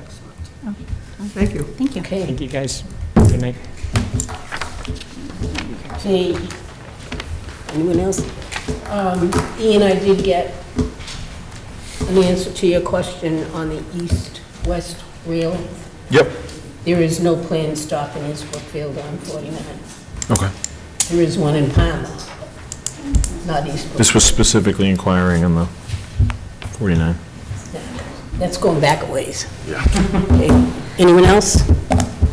Excellent. Thank you. Thank you. Okay, Thank you, guys. Good night. okay. Anyone else? Um, Ian, I did get an answer to your question on the east-west rail. Yep. There is no planned stop in East Brookfield on 49. Okay. There is one in Palmer, not East Brookfield. This was specifically inquiring on the 49. That's going back a ways. Yeah. Anyone else?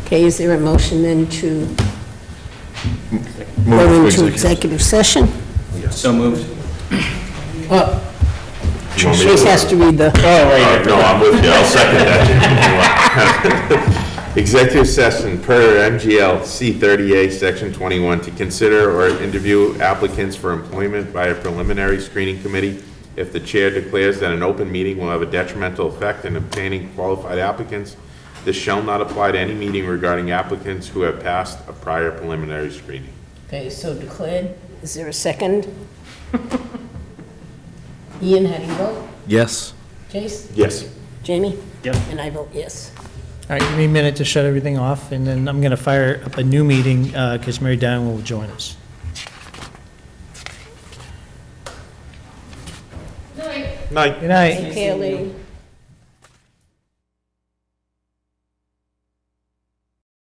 Okay, is there a motion then to go Move into to executive session? So moved. Oh, You want me to- Chase has to read the, Oh, No, I'm with you, I'll second that. Executive session per MGL C 30A, Section 21, to consider or interview applicants for employment by a preliminary screening committee if the chair declares that an open meeting will have a detrimental effect in obtaining qualified applicants. This shall not apply to any meeting regarding applicants who have passed a prior preliminary screening. okay, so declared. Is there a second? Ian, how do you vote? Yes. Chase? Yes. Jamie? Yep. And I vote yes. All right, give me a minute to shut everything off, and then I'm going to fire up a new meeting because Mary Diane will join us. Night. Good night. Take care, lady.